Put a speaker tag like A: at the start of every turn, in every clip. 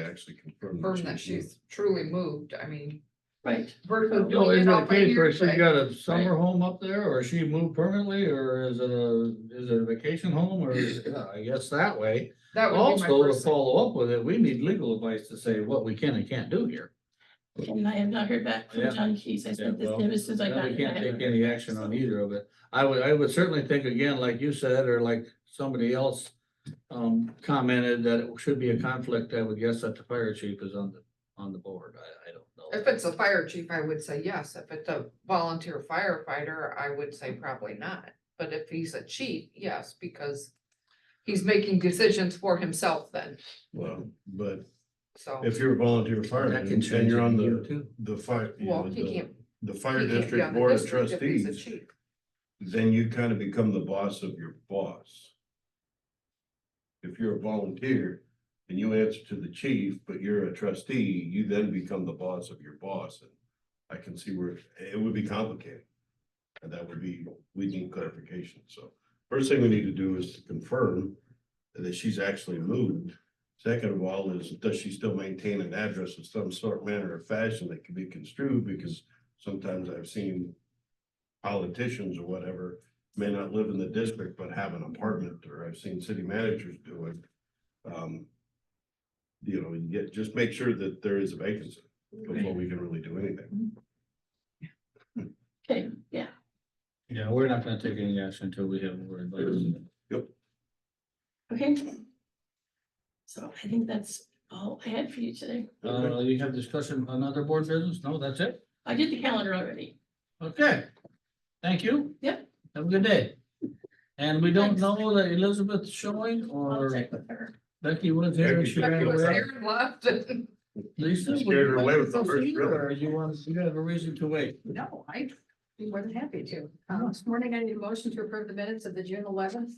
A: actually confirm.
B: confirm that she's truly moved, I mean,
C: Right,
B: versus
D: No,
B: doing
D: is
B: it
D: it a
B: all by
D: case where she
B: hearsay.
D: got a summer home up there, or she moved permanently, or is it a, is it a vacation home, or, is- yeah, I guess that way.
B: That would be my
D: Also, to
B: first.
D: follow up with it, we need legal advice to say what we can and can't do here.
C: and I have not heard back
D: Yeah.
C: from John Keys, I sent
D: Yeah,
C: this
D: well,
C: to him as soon as I
D: Then
C: got
D: we can't take
C: it.
D: any action on either of it. I would, I would certainly think again, like you said, or like somebody else um, commented that it should be a conflict, I would guess that the fire chief is on the, on the board, I, I don't know.
B: If it's a fire chief, I would say yes. If it's a volunteer firefighter, I would say probably not. But if he's a chief, yes, because he's making decisions for himself then,
A: Well, but
B: so.
A: if you're a volunteer fire,
D: Mm-hmm. That can
A: and
D: change
A: you're on
D: in a year
A: the,
D: too.
A: the fire, you
B: Well,
A: know,
B: he
A: the,
B: can't,
A: the
B: he
A: fire
B: can't be
A: district
B: on the
A: board of
B: district if he's a
A: trustees,
B: chief.
A: then you kind of become the boss of your boss. If you're a volunteer and you answer to the chief, but you're a trustee, you then become the boss of your boss. And I can see where it would be complicated. And that would be, we need clarification. So first thing we need to do is to confirm that she's actually moved. Second of all is, does she still maintain an address of some sort, manner or fashion that can be construed? Because sometimes I've seen politicians or whatever may not live in the district but have an apartment, or I've seen city managers do it. Um, You know, you get, just make sure that there is a vacancy before we can really do anything.
C: Okay, yeah,
D: Yeah, we're not gonna take any action until we have more advice.
A: Mm-hmm.
C: okay. So I think that's all I had for you today.
D: Uh, you have discussion on other board business? No, that's it?
C: I did the calendar already.
D: Okay, thank you.
C: Yep.
D: Have a good day. And we don't
C: Thanks.
D: know that Elizabeth's showing
C: I'll
D: or
C: check with her.
D: Becky was here and she
A: Becky
D: ran
B: Becky was
D: away.
B: there and left and-
D: Lisa.
A: You
D: would
A: scared her
D: you
A: away
D: like
A: with the
D: to
A: first
D: proceed,
A: really.
D: Or you want, you have a reason to wait?
E: No, I'd be more than happy to. Um, this morning I need a motion to approve the minutes of the June eleventh,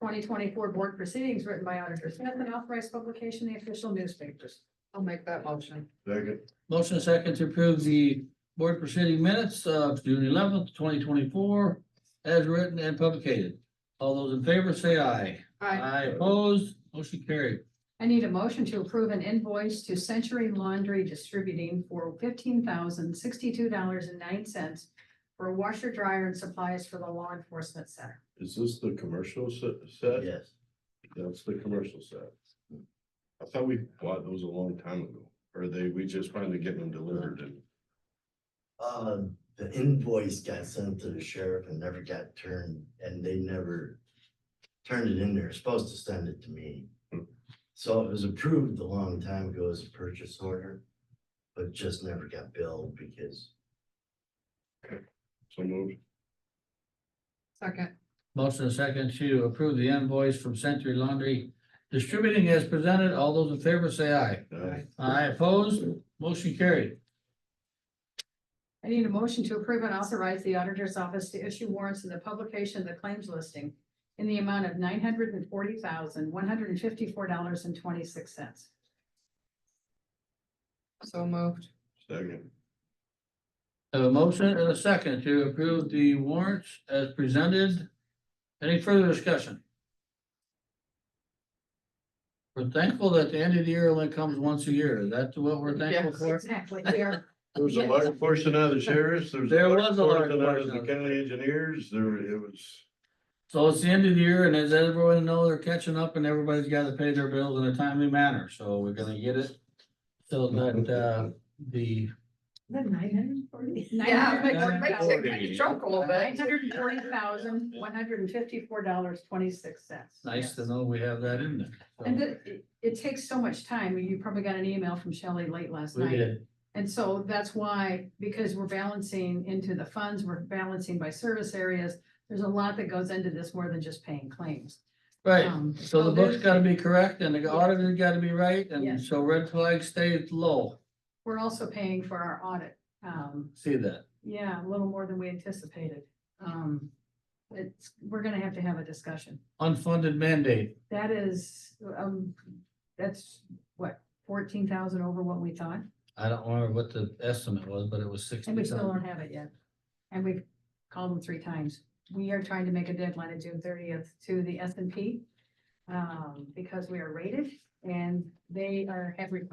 E: twenty twenty-four board proceedings written by Auditor Smith and authorized publication in the official newspapers.
B: I'll make that motion.
A: Second,
D: Motion second to approve the board proceeding minutes of June eleventh, twenty twenty-four as written and publicated. All those in favor say aye.
B: I,
D: Aye opposed, motion carried.
E: I need a motion to approve an invoice to Century Laundry Distributing for fifteen thousand sixty-two dollars and nine cents for a washer, dryer, and supplies for the law enforcement center.
A: is this the commercial se- set?
D: Yes.
A: That's the commercial set. I thought we bought those a long time ago, or they, we just finally getting them delivered and.
F: Uh, the invoice got sent to the sheriff and never got turned, and they never turned it in. They're supposed to send it to me.
A: Hmm.
F: So it was approved a long time ago as a purchase order, but just never got billed because
A: So moved.
B: second,
D: Motion and second to approve the invoice from Century Laundry Distributing as presented. All those in favor say aye.
A: Aye.
D: Aye opposed, motion carried.
E: I need a motion to approve and authorize the auditor's office to issue warrants in the publication of the claims listing in the amount of nine hundred and forty thousand, one hundred and fifty-four dollars and twenty-six cents.
B: so moved.
A: Second,
D: A motion and a second to approve the warrants as presented. Any further discussion? We're thankful that the end of the year only comes once a year. Is that what we're thankful
B: Yes.
D: for?
E: Exactly, we are,
A: there was a large portion out of the sheriffs, there was.
D: There was a large
A: Out
D: portion
A: of
D: of-
A: the county engineers, there, it was.
D: So it's the end of the year and as everyone knows, they're catching up and everybody's got to pay their bills in a timely manner. So we're gonna get it. So that, uh, the
E: nine hundred and forty?
B: Yeah, it makes-
D: Yeah.
B: it makes it kind of choke a little
E: Nine
B: bit.
E: hundred and forty thousand, one hundred and fifty-four dollars, twenty-six cents.
D: nice to know we have that in there.
E: And
D: So
E: it, it takes so much time. You probably got an email from Shelley late last
D: We
E: night.
D: did,
E: And so that's why, because we're balancing into the funds, we're balancing by service areas, there's a lot that goes into this more than just paying claims.
D: right.
E: Um,
D: So the book's
E: there's-
D: gotta be correct and the auditor's gotta be right. And
E: Yes.
D: so red flag stays low.
E: We're also paying for our audit, um,
D: See that?
E: yeah, a little more than we anticipated. Um, it's, we're gonna have to have a discussion.
D: Unfunded mandate.
E: That is, um, that's what, fourteen thousand over what we thought,
D: I don't remember what the estimate was, but it was
E: and we
D: sixty
E: still don't
D: something.
E: have it yet. And we've called them three times. We are trying to make a deadline of June thirtieth to the S and P. Um, because we are rated and they are, have requested